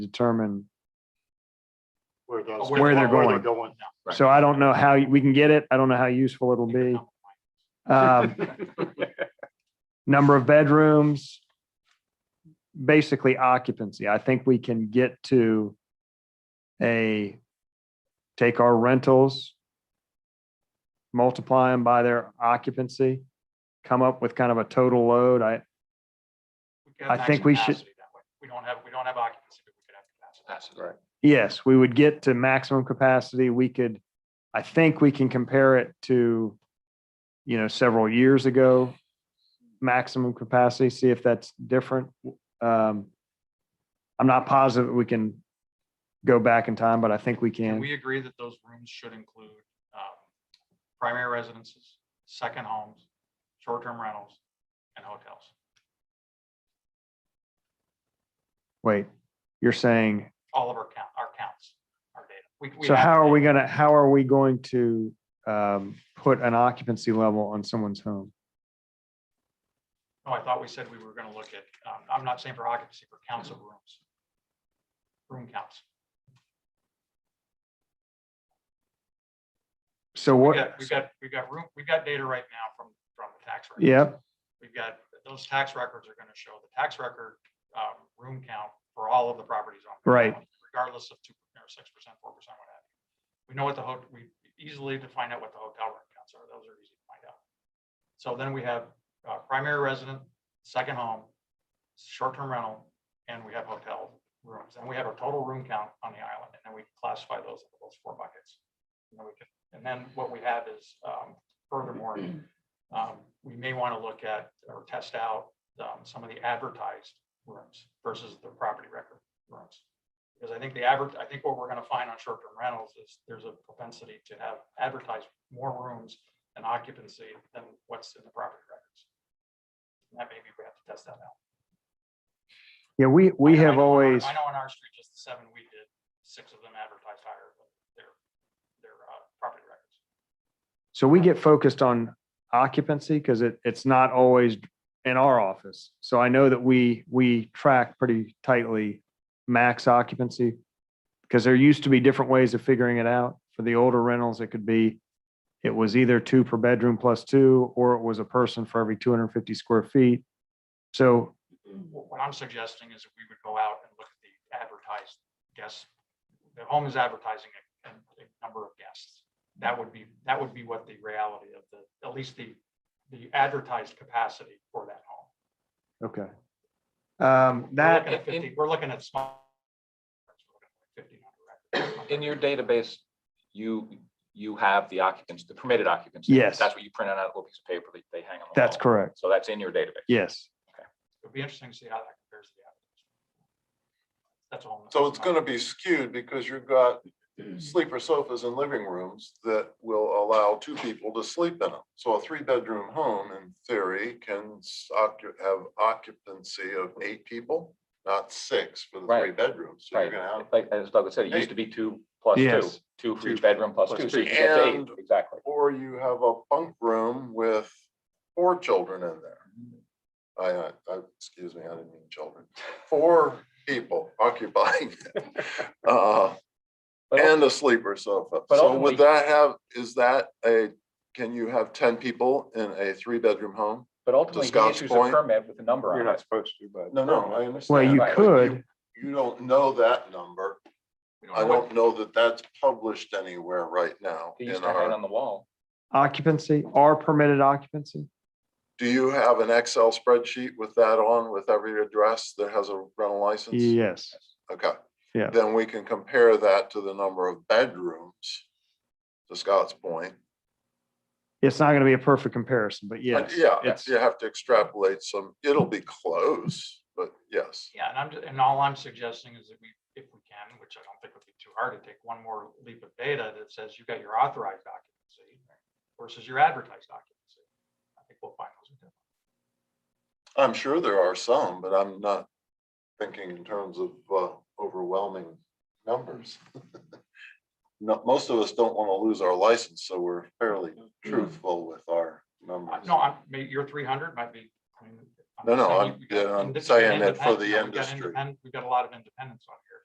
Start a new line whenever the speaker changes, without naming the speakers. determine.
Where those.
Where they're going. So I don't know how we can get it. I don't know how useful it'll be. Um, number of bedrooms, basically occupancy. I think we can get to a, take our rentals, multiply them by their occupancy, come up with kind of a total load. I,
could have
I think we
maximum
should-
capacity that way. We don't have, we don't have occupancy, but we could have capacity. That's
right.
yes, we would get to maximum capacity. We could, I think we can compare it to, you know, several years ago, maximum capacity, see if that's different. Um, I'm not positive we can go back in time, but I think we
Can
can.
we agree that those rooms should include um, primary residences, second homes, short-term rentals, and hotels?
Wait, you're saying,
All of our count, our counts, our data. We- we
so
have
how are
data.
we gonna, how are we going to um, put an occupancy level on someone's home?
No, Oh, I thought we said we were going to look at, um, I'm not saying for occupancy, for counts of rooms. Room counts.
So
We
what,
got, we got, we got room, we got data right now from, from the tax records.
yep,
We've got, those tax records are gonna show the tax record, um, room count for all of the properties on. Cook
Right.
Island, Regardless of two, or six percent, four percent, what have you. We know what the hotel, we easily to find out what the hotel room counts are. Those are easy to find out. So then we have, uh, primary resident, second home, short-term rental, and we have hotel rooms. And we have a total room count on the island, and then we classify those, into those four buckets. And then we can, and then what we have is, um, furthermore, um, we may want to look at or test out um, some of the advertised rooms versus the property record rooms. Because I think the average, I think what we're going to find on short-term rentals is there's a propensity to have advertised more rooms and occupancy than what's in the property records. And That maybe we have to test that out.
yeah, we, we
I know- I
have
know on our-
always.
I know on our street, just the seven we did, six of them advertised higher than their, their uh, property records.
So we get focused on occupancy because it, it's not always in our office. So I know that we, we track pretty tightly max occupancy. Because there used to be different ways of figuring it out. For the older rentals, it could be, it was either two per bedroom plus two, or it was a person for every two hundred and fifty square feet. So,
Wh- What I'm suggesting is that we would go out and look at the advertised guests. The home is advertising a, a- a number of guests. That would be, that would be what the reality of the, at least the, the advertised capacity for that home.
okay. Um,
We're
that,
looking at fifty, we're looking at small. Fifteen hundred.
In your database, you, you have the occupants, the permitted occupants.
Yes.
That's what you print out on a little piece of paper that they hang on the wall.
that's correct.
So that's in your database.
Yes.
It'd be interesting to see how that compares to the average. That's all.
So it's gonna be skewed because you've got sleeper sofas in living rooms that will allow two people to sleep in them. So a three-bedroom home in theory can s- occu- have occupancy of eight people, not six for the
Right.
three bedrooms. So you're
Right.
gonna have,
Like, as Doug said, it used to be two plus two,
Yes.
two for
Two
each bedroom plus
plus
two. So
two.
you get eight,
And-
exactly.
or you have a bunk room with four children in there. I, I, I- excuse me, I didn't mean children. Four people occupying. it. Uh,
But
And a sleeper sofa.
but
So would
ultimately-
that have, is that a, can you have ten people in a three-bedroom home?
But ultimately,
to
he
Scott's
issues a
point-
permit with a number
You're
on
not
it.
supposed to, but.
No, no, I understand.
Well, you
but
could,
You don't know that number. I don't know that that's published anywhere right now.
He
in
used to hang
our-
on the wall.
occupancy or permitted occupancy.
Do you have an Excel spreadsheet with that on, with every address that has a rental license?
Yes.
Okay.
Yeah.
Then we can compare that to the number of bedrooms, to Scott's point.
It's not going to be a perfect comparison, but
And
yes.
Yeah,
it's-
you have to extrapolate some, it'll be close, but yes.
Yeah, and I'm, ju- and all I'm suggesting is that we, if we can, which I don't think would be too hard to take one more leap of data that says you've got your authorized occupancy versus your advertised occupancy. I think we'll find those. are different.
I'm sure there are some, but I'm not thinking in terms of uh, overwhelming numbers. No, most of us don't want to lose our license, so we're fairly truthful with our numbers.
Uh, No, I'm, maybe your three hundred might be. I mean, I'm
No,
just
no,
saying
I'm-
we- we got
yeah, I'm
inde- we got
saying that for
independent-
the
no, we got
industry.
independent- We've got a lot of independence on